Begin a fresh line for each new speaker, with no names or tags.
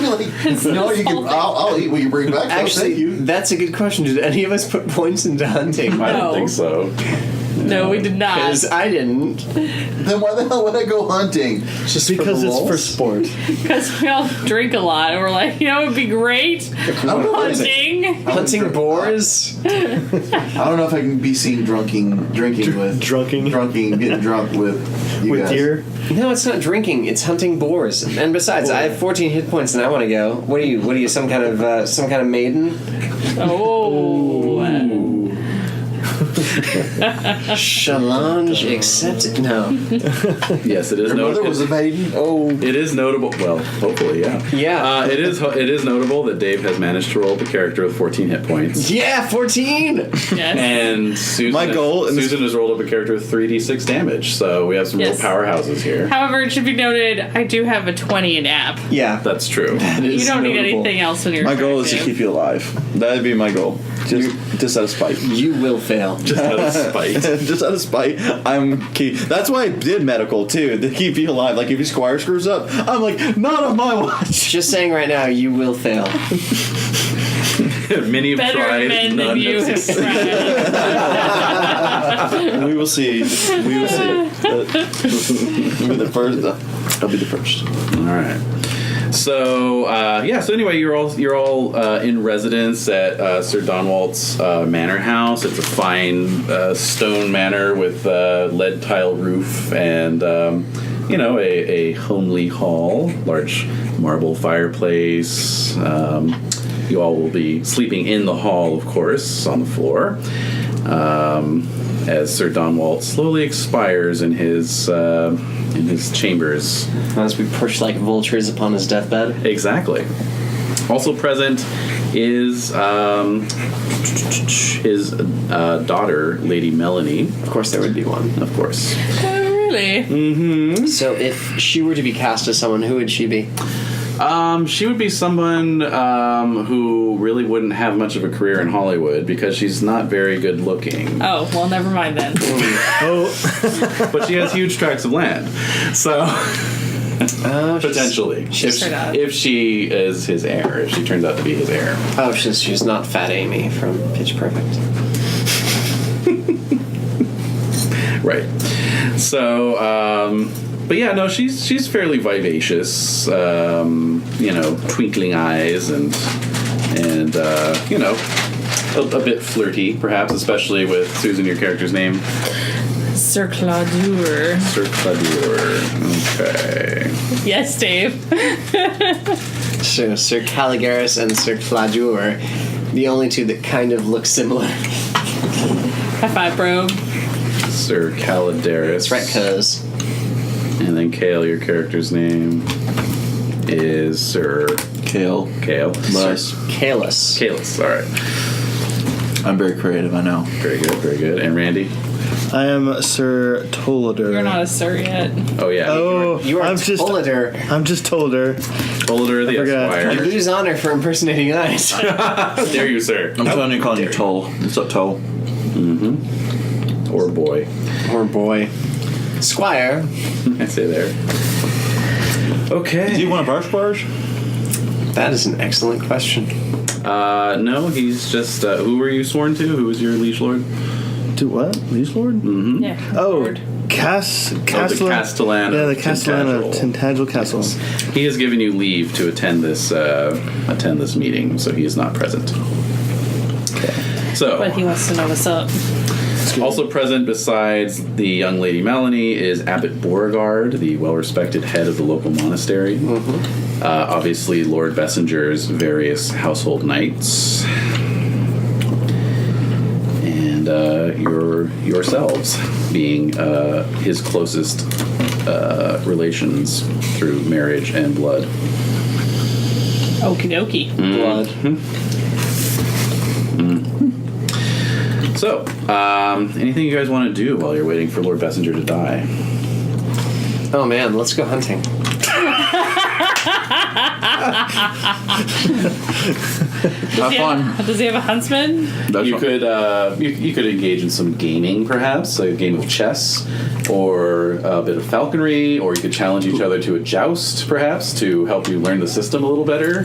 Really? no, you can. I'll, I'll eat what you bring back. I'll
Actually,
thank you.
that's a good question. Did any of us put points into hunting?
I
No.
don't think so.
No, we did not.
Because I didn't.
Then why the hell would I go hunting?
Just for
because
the
it's for
lulz?
sport.
Because we all drink a lot, and we're like, you know, it'd be great
I don't know. If I,
hunting.
hunting boars.
I don't know if I can be seen drunking, drinking with,
drunking.
drunking, getting drunk with you
With
guys.
deer,
No, it's not drinking. It's hunting boars. And besides, I have 14 hit points, and I want to go. What are you? What are you? Some kind of uh, some kind of maiden?
Oh,
Challenge accepted. No.
Yes, it is.
Your
no-
mother
it-
was a maiden. Oh,
It is notable. Well, hopefully, yeah.
Yeah.
Uh, it is. It is notable that Dave has managed to roll the character with 14 hit points.
Yeah, 14.
yes.
And Susan,
My goal in this-
Susan has rolled up a character with 3d6 damage. So we have some
Yes.
real powerhouses here.
However, it should be noted, I do have a 20 in app.
Yeah.
That's true.
You don't need anything else in your
my goal is to
attractive.
keep you alive. That'd be my goal. Just, just out of spite.
You will fail.
Just out of spite.
just out of spite, I'm keep. That's why I did medical too to keep you alive. Like if your squire screws up, I'm like not on my watch.
Just saying right now, you will fail.
Many have
Better
tried.
men
none
than you
have
have tried.
we will see. We will see. You'll be the first. I'll be the first.
All right. So uh, yeah. So anyway, you're all you're all uh, in residence at uh, Sir Donwalt's uh, manor house. It's a fine uh, stone manor with uh, lead tile roof and um, you know a, a homely hall, large marble fireplace. Um, you all will be sleeping in the hall, of course, on the floor. Um, as Sir Donwalt slowly expires in his uh, in his chambers.
Unless we perch like vultures upon his deathbed.
Exactly. Also present is um, his uh, daughter, Lady Melanie,
Of course, there would be one.
of course.
Oh, really?
So, if she were to be cast as someone, who would she be?
Um, she would be someone um, who really wouldn't have much of a career in Hollywood because she's not very good looking,
Oh, well, never mind then.
Oh,
but she has huge tracts of land. So
Oh, she's-
potentially, if,
she's-
if she is his heir, if she turns out to be his heir.
Oh, she's, she's not Fat Amy from Pitch Perfect.
Right. So, um, but yeah, no, she's she's fairly vivacious. Um, you know, twinkling eyes and and uh, you know, a, a bit flirty, perhaps, especially with Susan, your character's name,
Sir Claudur.
Sir Cladur. Okay.
Yes, Dave.
So, Sir Caligaris and Sir Cladur, the only two that kind of look similar.
High five, bro.
Sir Calidaris.
That's right, cuz.
And then Kale, your character's name is Sir
Kale.
Kale.
Nice.
Kalis.
Kalis. All right.
I'm very creative. I know.
Very good. Very good. And Randy.
I am Sir Tollider.
You're not a sir yet.
Oh yeah.
Oh,
You are
I'm just.
Tollider.
I'm just uh, Tollider.
Boulder the
forgot.
Esquire.
You lose honor for impersonating eyes.
How dare you, sir?
I'm trying to call you Toll. What's up, Toll?
Or boy.
Poor boy. Squire.
I say there.
Do
Okay.
you want a barf barge?
That is an excellent question.
Uh, no, he's just. Uh, who were you sworn to? Who was your liege lord? Oh,
Do what? Liege Lord?
Yeah.
Oh,
Lord.
Cass, Castle.
Castellan
Yeah, the
of
Castellan of Tintagel Castle.
He has given you leave to attend this uh, attend this meeting, so he is not present.
But
So,
he wants to know what's up.
also present besides the young lady Melanie is Abbot Beauregard, the well-respected head of the local monastery. Uh, obviously, Lord Bessinger's various household knights, and uh, your yourselves being uh, his closest uh, relations through marriage and blood.
Okie dokie.
Mm.
Blood.
So, um, anything you guys want to do while you're waiting for Lord Bessinger to die?
Oh man, let's go hunting.
Does he
fun.
Have, does he have a huntsman?
you could uh, you, you could engage in some gaming, perhaps a game of chess, or a bit of falconry, or you could challenge each other to a joust, perhaps to help you learn the system a little better.